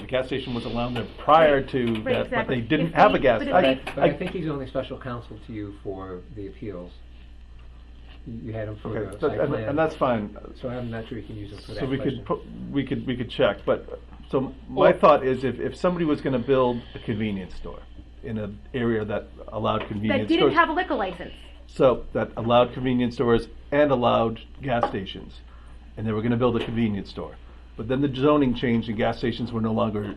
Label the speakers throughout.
Speaker 1: The gas station was allowed there prior to
Speaker 2: Right,
Speaker 1: that, but
Speaker 2: exactly.
Speaker 1: they didn't
Speaker 2: If
Speaker 1: have a
Speaker 2: we-
Speaker 1: gas.
Speaker 2: but if
Speaker 1: I-
Speaker 2: we-
Speaker 3: But I think he's only special counsel to you for the appeals. You you had him for
Speaker 1: Okay,
Speaker 3: the
Speaker 1: so-
Speaker 3: site
Speaker 1: and,
Speaker 3: plan.
Speaker 1: and that's fine.
Speaker 3: So I'm not sure you can use him for that
Speaker 1: So we
Speaker 3: question.
Speaker 1: could, pu- we could, we could check, but, so my thought is if, if somebody was gonna build a convenience store in an area that allowed
Speaker 2: That
Speaker 1: convenience
Speaker 2: didn't
Speaker 1: stores.
Speaker 2: have a liquor license.
Speaker 1: So, that allowed convenience stores and allowed gas stations, and they were gonna build a convenience store. But then the zoning changed and gas stations were no longer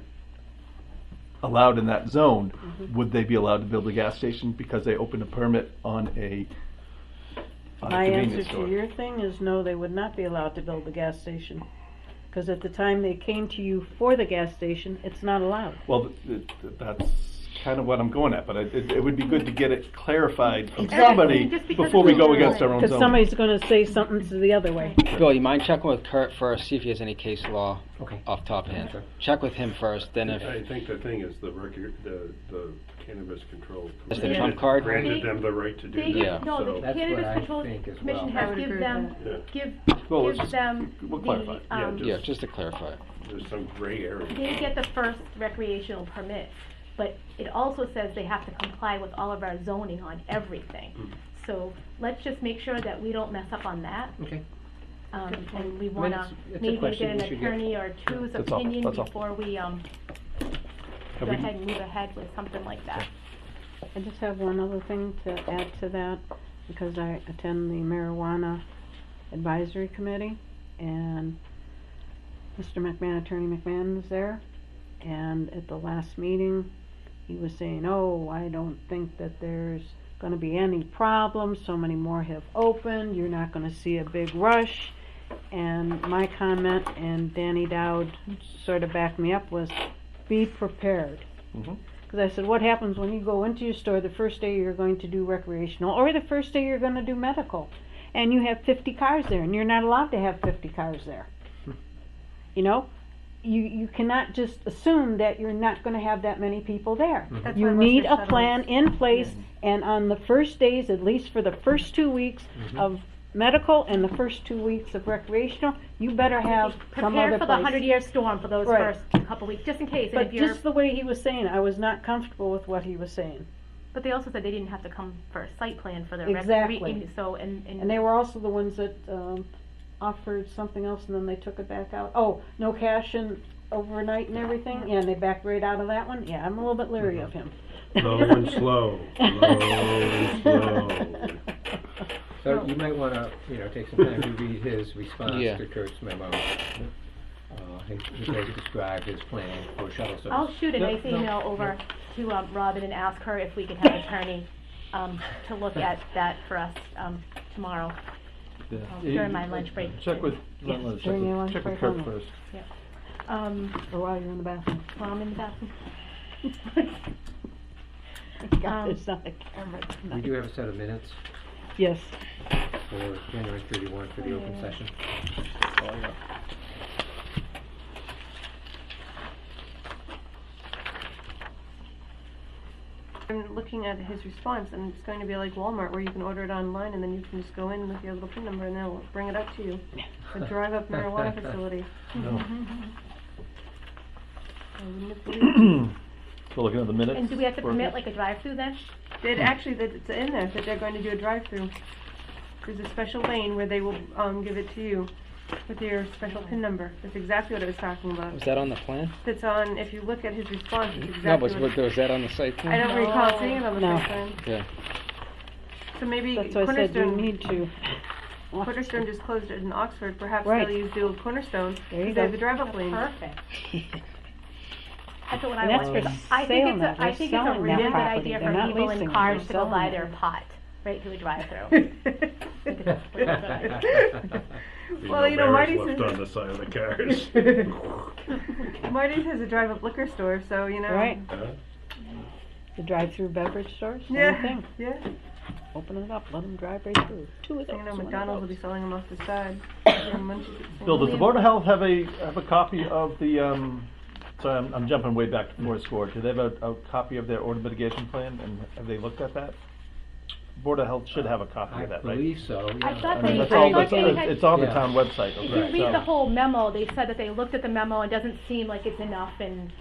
Speaker 1: allowed in that zone. Would they be allowed to build a gas station because they opened a permit on a, on a
Speaker 4: My answer
Speaker 1: convenience
Speaker 4: to
Speaker 1: store?
Speaker 4: your thing is no, they would not be allowed to build the gas station. Because at the time they came to you for the gas station, it's not allowed.
Speaker 1: Well, th- th- that's kind of what I'm going at, but I- it, it would be good to get it clarified from
Speaker 2: Exactly.
Speaker 1: somebody
Speaker 2: Just because
Speaker 1: before we
Speaker 2: it's
Speaker 1: go
Speaker 2: not
Speaker 1: against our
Speaker 2: right.
Speaker 1: own
Speaker 4: Because
Speaker 1: zoning.
Speaker 4: somebody's gonna say something to the other way.
Speaker 5: Bill, you mind checking with Kurt first, see if he has any case law
Speaker 3: Okay.
Speaker 5: off the top of his
Speaker 3: Okay.
Speaker 5: head. Check with him first, then
Speaker 6: I
Speaker 5: if,
Speaker 6: think the thing is the record, the, the Cannabis Control.
Speaker 5: Just
Speaker 2: the
Speaker 6: Commission
Speaker 2: trump
Speaker 5: card?
Speaker 6: Granted them the right to do
Speaker 2: They,
Speaker 6: that.
Speaker 5: Yeah.
Speaker 2: no, the
Speaker 6: so-
Speaker 3: That's what
Speaker 2: Cannabis
Speaker 3: I
Speaker 2: Control
Speaker 3: think as
Speaker 2: Commission
Speaker 3: well. I
Speaker 2: has
Speaker 3: would
Speaker 2: give
Speaker 7: agree
Speaker 2: them,
Speaker 6: with
Speaker 2: give,
Speaker 1: Well, let's
Speaker 2: give
Speaker 1: just-
Speaker 2: them
Speaker 1: we'll
Speaker 2: the,
Speaker 1: clarify.
Speaker 6: Yeah,
Speaker 2: um,
Speaker 6: just-
Speaker 5: yeah, just to clarify.
Speaker 6: There's some gray area.
Speaker 2: they get the first recreational permit. But it also says they have to comply with all of our zoning on everything.
Speaker 6: Hmm.
Speaker 2: So let's just make sure that we don't mess up on that.
Speaker 3: Okay.
Speaker 2: Um, and we
Speaker 3: mean,
Speaker 2: wanna
Speaker 3: it's- it's a
Speaker 2: maybe
Speaker 3: question
Speaker 2: get an
Speaker 3: we should get.
Speaker 2: attorney or two's
Speaker 1: That's all,
Speaker 2: opinion
Speaker 1: that's all.
Speaker 2: before we, um,
Speaker 1: Have
Speaker 2: go
Speaker 1: we-
Speaker 2: ahead and move ahead with something like that.
Speaker 4: I just have one other thing to add to that, because I attend the marijuana advisory committee, and Mr. McMahon, Attorney McMahon was there, and at the last meeting, he was saying, oh, I don't think that there's gonna be any problems, so many more have opened, you're not gonna see a big rush. And my comment, and Danny Dowd sort of backed me up, was be prepared.
Speaker 1: Mhm.
Speaker 4: Because I said, what happens when you go into your store the first day you're going to do recreational or the first day you're going to do medical and you have 50 cars there and you're not allowed to have 50 cars there? you know? You, you cannot just assume that you're not going to have that many people there.
Speaker 7: That's why
Speaker 4: You
Speaker 7: most
Speaker 4: need
Speaker 7: are
Speaker 4: a
Speaker 7: settling.
Speaker 4: plan in place, and on the first days, at least for the first two weeks
Speaker 6: Mm-hmm.
Speaker 4: of medical and the first two weeks of recreational, you better have some
Speaker 2: Prepare
Speaker 4: other
Speaker 2: for the
Speaker 4: place.
Speaker 2: hundred year storm for those
Speaker 4: Right.
Speaker 2: first couple weeks, just in case, and
Speaker 4: But
Speaker 2: if you're,
Speaker 4: just the way he was saying, it, I was not comfortable with what he was saying.
Speaker 2: but they also said they didn't have to come for a site plan for their rec-
Speaker 4: Exactly.
Speaker 2: re- so, and, and.
Speaker 4: And they were also the ones that, um, offered something else and then they took it back out. Oh, no cash and overnight and everything, yeah, and they backed right out of that one. Yeah, I'm a little bit leery of him.
Speaker 6: Low and slow, low and slow.
Speaker 3: So
Speaker 2: Oh.
Speaker 3: you might want to, you know, take some time to read his response
Speaker 5: Yeah.
Speaker 3: to Kurt's memo. Uh, He he does describe his plan for shuttle service.
Speaker 2: I'll shoot a
Speaker 3: No,
Speaker 2: nice
Speaker 3: no,
Speaker 2: email over to um, Robin and ask her if we could have an attorney um, to look at that for us um, tomorrow
Speaker 1: Yeah.
Speaker 2: during my lunch break.
Speaker 1: Check with,
Speaker 2: Yeah.
Speaker 1: check
Speaker 4: During your
Speaker 1: with
Speaker 4: lunch
Speaker 1: check with
Speaker 4: break
Speaker 1: Kurt
Speaker 4: only.
Speaker 1: first.
Speaker 2: Um,
Speaker 4: Or while you're in the bathroom.
Speaker 2: while I'm in the bathroom.
Speaker 4: Thank God
Speaker 2: Um,
Speaker 4: There's not a
Speaker 3: We
Speaker 4: camera tonight.
Speaker 3: do have a set of minutes
Speaker 4: Yes.
Speaker 3: for January 31 for the open session.
Speaker 7: I'm looking at his response, and it's going to be like Walmart, where you can order it online, and then you can just go in with your little PIN number, and they'll bring it up to you. A drive-up marijuana facility. I wouldn't have believed it.
Speaker 1: So looking at the minutes.
Speaker 2: And do we have to
Speaker 1: for-
Speaker 2: permit like a drive-through then?
Speaker 7: It actually, that it's in there, that they're going to do a drive-through. There's a special lane where they will, um, give it to you with your special PIN number. That's exactly what I was talking about.
Speaker 5: Was that on the plan?
Speaker 7: That's on, if you look at his response, it's
Speaker 5: No, but
Speaker 7: exactly what.
Speaker 5: was was that on the site
Speaker 7: I
Speaker 5: plan?
Speaker 7: don't recall seeing it on the
Speaker 4: No.
Speaker 7: first time.
Speaker 5: Yeah.
Speaker 7: So maybe
Speaker 4: That's why I said you
Speaker 7: Cornerstone-
Speaker 4: need to.
Speaker 7: Cornerstone just closed it in Oxford, perhaps
Speaker 4: Right.
Speaker 7: they'll use the old Cornerstone,
Speaker 4: There you
Speaker 7: because they
Speaker 4: go.
Speaker 7: have the drive-up lane.
Speaker 2: Perfect. That's what I
Speaker 4: And that's
Speaker 2: want.
Speaker 4: for
Speaker 2: I think
Speaker 4: sale
Speaker 2: it's
Speaker 4: now.
Speaker 2: a, I
Speaker 4: They're
Speaker 2: think it's a
Speaker 4: selling
Speaker 2: really
Speaker 4: that
Speaker 2: good
Speaker 4: property.
Speaker 2: idea
Speaker 4: They're
Speaker 2: for
Speaker 4: not
Speaker 2: people
Speaker 4: leasing
Speaker 2: in
Speaker 4: it.
Speaker 2: cars
Speaker 4: They're
Speaker 2: to go
Speaker 4: selling
Speaker 2: buy
Speaker 4: it.
Speaker 2: their pot right through a drive-through.
Speaker 7: Well, you know, Marty
Speaker 6: Bears Left on
Speaker 7: says,
Speaker 6: the side of the cars.
Speaker 7: Marty has a drive-up liquor store, so, you know.
Speaker 4: Right,
Speaker 6: Huh?
Speaker 4: the drive-through beverage stores, same
Speaker 7: Yeah,
Speaker 4: thing.
Speaker 7: yeah,
Speaker 4: Open it up, let them drive right through. Two of those.
Speaker 7: you know,
Speaker 4: one of
Speaker 7: McDonald's will
Speaker 4: those.
Speaker 7: be selling them off the side.
Speaker 1: Bill, does the Board of Health have a, have a copy of the, um, sorry, I'm, I'm jumping way back to Board Score. Do they have a, a copy of their order mitigation plan and have they looked at that? Board of Health should have a copy
Speaker 3: I
Speaker 1: of that, right?
Speaker 3: believe so, yeah.
Speaker 2: I thought
Speaker 1: I
Speaker 2: they-
Speaker 1: mean, that's
Speaker 2: I
Speaker 1: all,
Speaker 2: thought
Speaker 1: that's,
Speaker 2: they had-
Speaker 1: it's on the
Speaker 3: Yeah.
Speaker 1: town website,
Speaker 2: If
Speaker 1: okay?
Speaker 2: you read
Speaker 1: so-
Speaker 2: the whole memo, they said that they looked at the memo and doesn't seem like it's enough and